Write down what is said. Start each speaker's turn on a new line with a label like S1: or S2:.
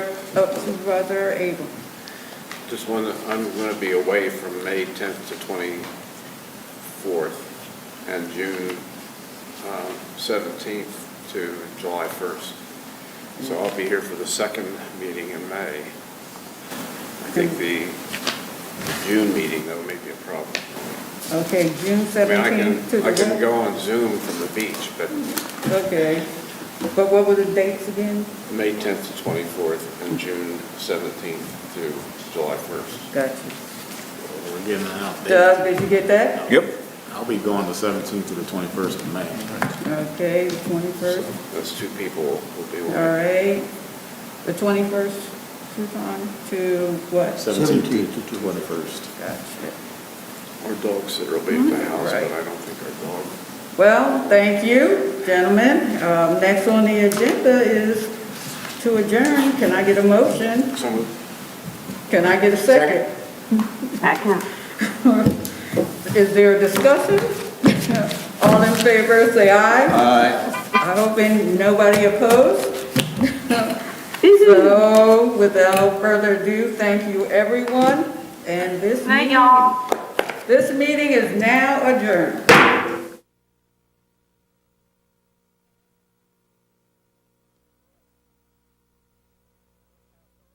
S1: Oh, Supervisor Abel.
S2: Just one, I'm going to be away from May 10th to 24th, and June um, 17th to July 1st. So I'll be here for the second meeting in May. I think the June meeting, though, may be a problem.
S1: Okay, June
S2: I mean, I can,
S1: seventeenth to the.
S2: I can go on Zoom from the beach, but
S1: Okay. But what were the dates again?
S2: May 10th to 24th, and June 17th to July 1st.
S1: Gotcha.
S3: We're getting an update.
S1: Doug, did you get that?
S4: Yep.
S3: I'll be going the 17th to the 21st of May.
S1: Okay, the twenty-first,
S2: Those two people will be
S1: all
S2: away.
S1: right. The twenty-first, Susan, to what?
S3: 17th to 21st.
S1: Gotcha.
S2: Our dog sitter will be at the house,
S1: Right.
S2: but I don't think our dog.
S1: Well, thank you, gentlemen. Um, next on the agenda is to adjourn. Can I get a motion?
S2: Some of
S1: Can I get a second?
S5: Second.
S1: Is there a discussion? All in favor, say aye. I hope ain't nobody opposed. So without further ado, thank you, everyone, and this
S5: Night,
S1: meeting,
S5: y'all.
S1: this meeting is now adjourned.